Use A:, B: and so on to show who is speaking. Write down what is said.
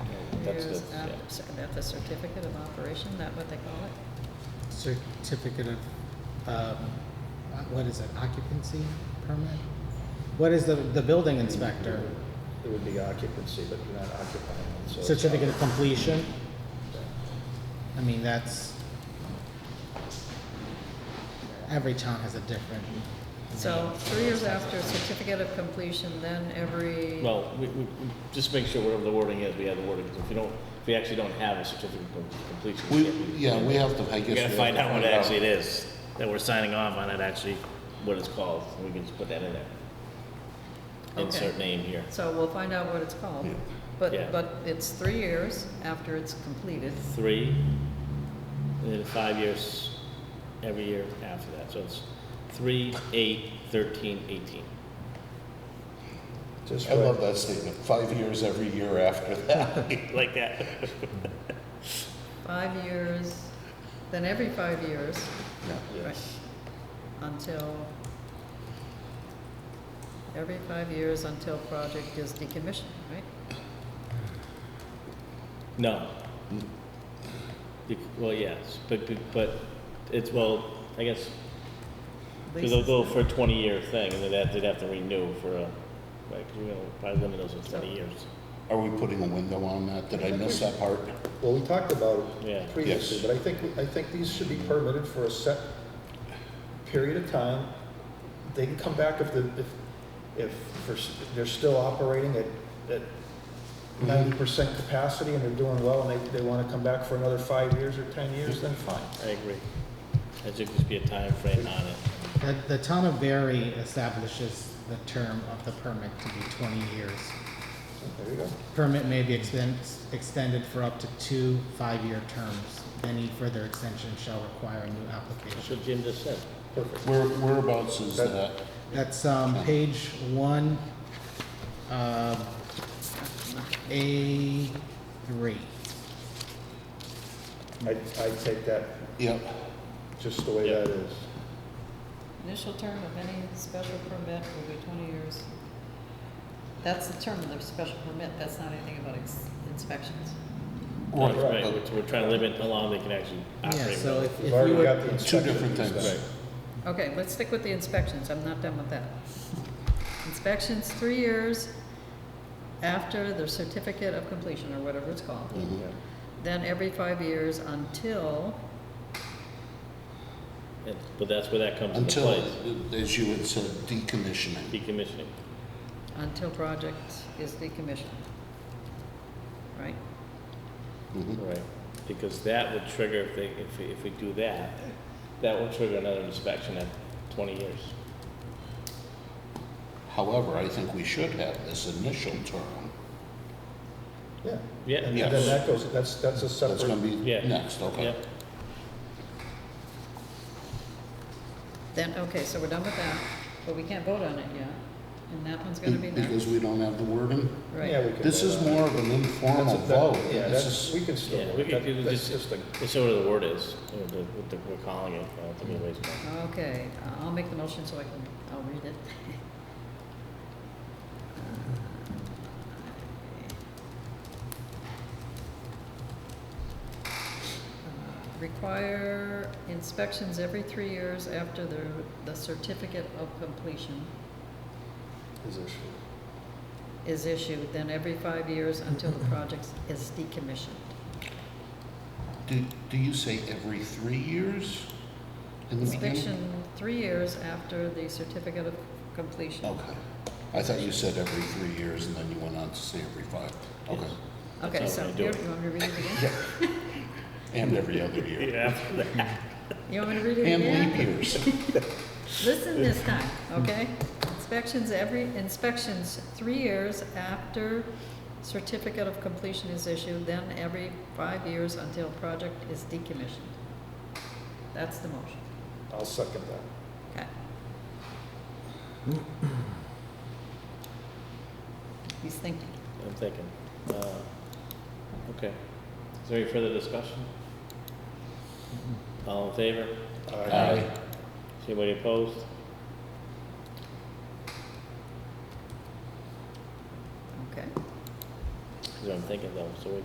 A: that's
B: years
A: good,
B: after,
A: yeah. Mm-hmm.
B: cer- that's a certificate of operation, is that what they call it?
C: certificate of, um, what is it, occupancy permit? What is the, the building inspector?
D: It would be occupancy, but you're not occupying it, so. it's
C: Certificate
D: not-
C: of completion? I mean, that's, every town has a different.
B: So three years after certificate of completion, then every,
A: Well, we, we, we just make sure whatever the wording is, we have the wording, 'cause if you don't, if we actually don't have a certificate of completion.
E: We,
A: can't be-
E: yeah, we have to, I guess.
A: We gotta
E: we
A: find
E: have
A: out
E: to
A: what actually it is, that we're signing off on it actually, what it's called, and we can just put that in there.
B: Okay.
A: Insert name here.
B: so we'll find out what it's called.
E: Yeah.
A: Yeah.
B: But, but it's three years after it's completed.
A: Three, and then five years, every year after that, so it's three, eight, thirteen, eighteen.
D: Just
E: I love
D: right,
E: that statement, five years every year after that.
A: Like that.
B: Five years, then every five years, right,
D: yes.
B: until, every five years until project is decommissioned, right?
A: No. Bec- Well, yes, but, but- but it's, well, I guess, because they'll go for a twenty-year thing, and then they'd have- they'd have to renew for a, like, you know, probably limit those to twenty years.
E: Are we putting a window on that? Did I miss that part?
D: Well, we talked about
A: Yeah.
D: it previously,
E: Yes.
D: but I think, I think these should be permitted for a set period of time. They can come back if the, if, if for s- they're still operating at, at ninety percent capacity and they're doing well and they, they wanna come back for another five years or ten years, then fine.
A: I agree. There should just be a time frame on it.
C: The, the town of Berry establishes the term of the permit to be twenty years.
D: There you go.
C: Permit may be extend, extended for up to two five-year terms. Any further extension shall require a new
A: That's
C: application.
A: what Jim just said.
D: Perfect.
E: Where, whereabouts is that?
C: That's, um, page one, um, A three.
D: I, I take that
E: Yep,
D: just the way that is.
B: Initial term of any special permit will be twenty years. That's the term of the special permit, that's not anything about ins- inspections.
A: That's
E: Right,
A: Right,
E: but-
A: which we're trying to limit how long they can actually
C: Yeah,
A: operate.
C: so if,
D: We've
C: if you
D: already
C: would,
D: got the
E: two
D: inspection.
E: different
D: piece
E: things.
D: done.
B: Okay, let's stick with the inspections, I'm not done with that. Inspections, three years after the certificate of completion, or whatever it's called.
E: Mhm.
D: Yeah.
B: Then every five years until,
A: And- But that's where that comes into
E: Until,
A: play,
E: as you had said, decommissioning.
A: decommissioning.
B: until project is decommissioned. Right?
E: Mhm.
A: Right. Because that would trigger, if they, if, we- if we do that, that will trigger another inspection at twenty years.
E: However, I think we should have this initial term.
D: Yeah.
A: Yeah.
D: And
E: Yes.
D: then that goes, that's, that's a
E: That's gonna
D: separate,
E: be
A: Yeah.
E: next, okay?
A: Yep.
B: Then, okay, so we're done with that, but we can't vote on it yet, and that one's gonna be next,
E: Because we don't have the wording?
D: yeah,
B: right?
D: we can.
E: This
D: vote
E: is
D: on it.
E: more of an informal
D: That's a- that-
E: vote.
D: Yeah,
E: This
D: that's,
E: is-
D: we can still,
A: Yeah,
D: vote.
A: we could do
D: That- that's
A: this,
D: just a
A: it's sort of the word is, or the, what the- we're calling it, I don't think it wastes time.
B: Okay, uh, I'll make the motion so I can, I'll read it. Uh, Require inspections every three years after the, the certificate of completion
D: position.
B: is issued, then every five years until the project is decommissioned.
E: Do, do you say every three years in the
B: Inspection
E: beginning?
B: three years after the certificate of completion.
A: Oh,
E: Okay. I thought you said every three years and then you went on to say every five. Okay.
B: Okay,
A: That's how
B: so
A: we do
B: here,
A: it.
B: you want me to read it again?
E: And every other year.
A: Yeah.
B: You want me to read it
E: And
B: again?
E: leap years.
B: Listen this time, okay? Inspections every, inspections three years after certificate of completion is issued, then every five years until project is decommissioned. That's the motion.
D: I'll second that.
B: Okay. He's thinking.
A: I'm thinking. Uh, Okay. Is there any further discussion? All in favor?
D: Aye.
A: Is anybody opposed?
B: Okay.
A: That's what I'm thinking though, so we